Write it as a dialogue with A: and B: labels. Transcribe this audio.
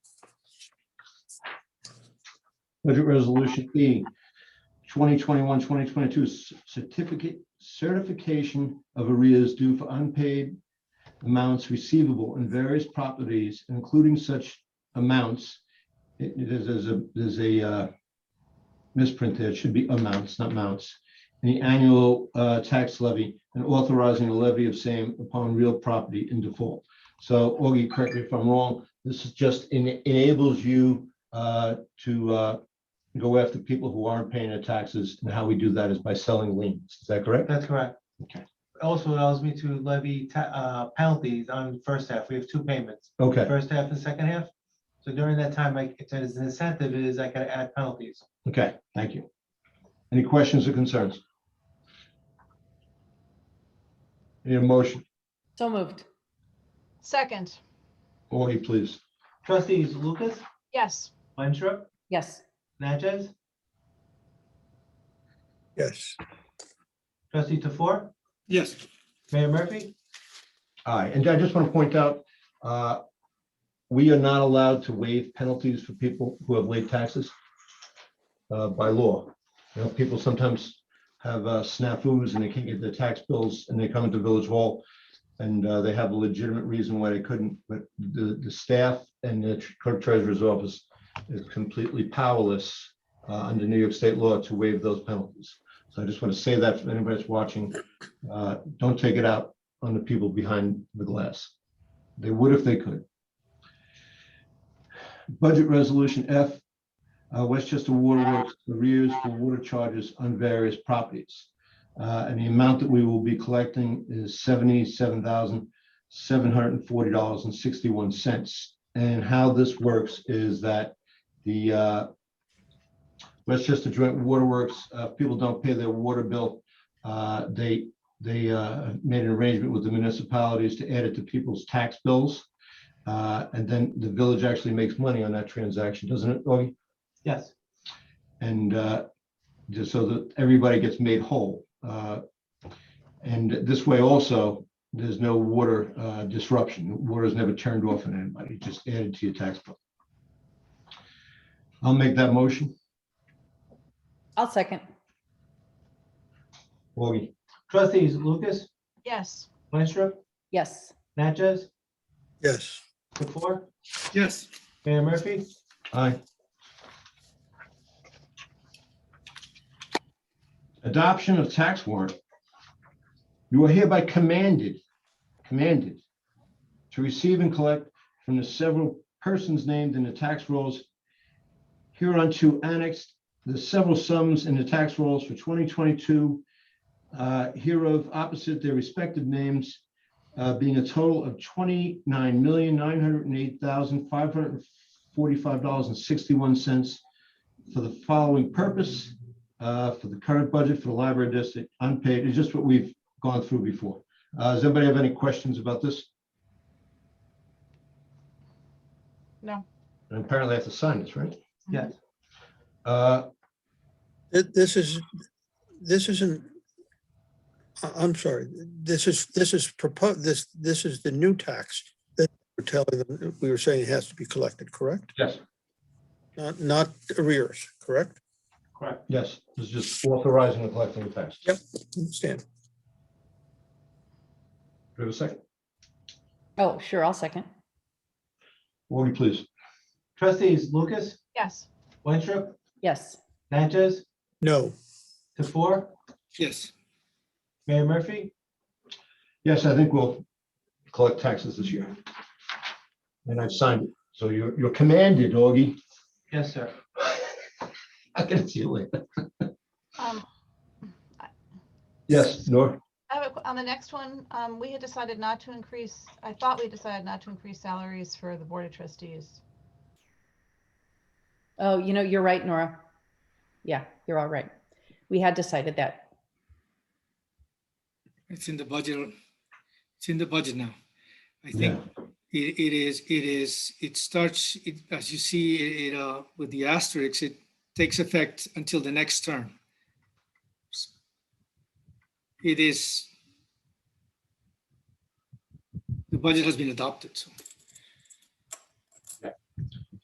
A: Budget Resolution E, 2021, 2022 c- certificate, certification of arrears due for unpaid amounts receivable in various properties, including such amounts. It- it is- There's a, there's a uh, misprint there. It should be amounts, not mounts. The annual uh, tax levy and authorizing a levy of same upon real property in default. So Augie, correct me if I'm wrong, this is just en- enables you uh, to uh, go after people who aren't paying their taxes, and how we do that is by selling liens. Is that correct?
B: That's correct.
A: Okay.
B: Also allows me to levy ta- uh, penalties on first half. We have two payments,
A: Okay,
B: first half and second half. So during that time, I, it's an incentive is I can add penalties.
A: okay, thank you. Any questions or concerns? Any motion,
C: So moved.
D: Second,
A: Augie, please.
B: Trustees Lucas,
D: yes.
B: Winthrop,
C: Yes.
B: Natchez,
E: yes,
B: trustee Tofor,
F: yes,
B: Mayor Murphy.
A: Aye, and I just want to point out, uh, we are not allowed to waive penalties for people who have late taxes uh, by law. You know, people sometimes have uh, snafus and they can't get their tax bills and they come into Village Hall and uh, they have a legitimate reason why they couldn't, but the, the staff and the clerk treasurer's office is completely powerless uh, under New York State law to waive those penalties. So I just want to say that for anybody that's watching, uh, don't take it out on the people behind the glass. They would if they could. Budget Resolution F, uh, Westchester Water Works arrears for water charges on various properties. Uh, And the amount that we will be collecting is seventy-seven thousand, seven hundred and forty dollars and sixty-one cents. And how this works is that the uh, Westchester Joint Waterworks, uh, people don't pay their water bill. uh, They they uh, made an arrangement with the municipalities to add it to people's tax bills. Uh, And then the village actually makes money on that transaction, doesn't it? Augie?
B: Yes,
A: And uh, just so that everybody gets made whole. Uh, And this way also, there's no water uh, disruption. Water is never turned off on anybody, just added to your tax bill. I'll make that motion.
C: I'll second.
A: Augie?
B: trustees Lucas,
D: Yes.
B: Winthrop,
C: Yes.
B: Natchez,
E: yes,
B: Tofor,
F: yes,
B: Mayor Murphy.
A: Aye. Adoption of tax warrant. You are hereby commanded, commanded to receive and collect from the several persons named in the tax rolls hereunto annexed the several sums in the tax rolls for 2022 uh, hereof opposite their respective names uh, being a total of twenty-nine million, nine hundred and eight thousand, five hundred and forty-five dollars and sixty-one cents for the following purpose, uh, for the current budget for the library district, unpaid, it's just what we've gone through before. Uh, does anybody have any questions about this?
D: No.
A: And apparently I have to sign this, right?
B: Yes.
A: Uh,
E: Th- this is, this isn't, I- I'm sorry, this is, this is proposed, this, this is the new tax that we're telling them, we were saying it has to be collected, correct?
A: yes,
E: Not, not arrears, correct?
B: Correct.
A: yes, this is just authorizing and collecting the tax.
E: Yep. Understand,
A: Do we have a second?
C: Oh, sure. I'll second.
A: Augie, please.
B: Trustees Lucas,
D: Yes.
B: Winthrop,
C: Yes.
B: Natchez,
E: no,
B: Tofor,
F: yes,
B: Mayor Murphy.
A: Yes, I think we'll collect taxes this year. And I've signed it. So you're, you're commanded, Augie.
B: Yes, sir.
A: I can see you later.
D: Um,
A: Yes, Nor,
D: I have a qu- On the next one, um, we had decided not to increase, I thought we decided not to increase salaries for the Board of Trustees.
C: Oh, you know, you're right, Nora. Yeah, you're all right. We had decided that.
F: it's in the budget, it's in the budget now. I
A: yeah,
F: think it, it is, it is, it starts, it, as you see, it- it, uh, with the asterisks, it takes effect until the next term. It is, the budget has been adopted, so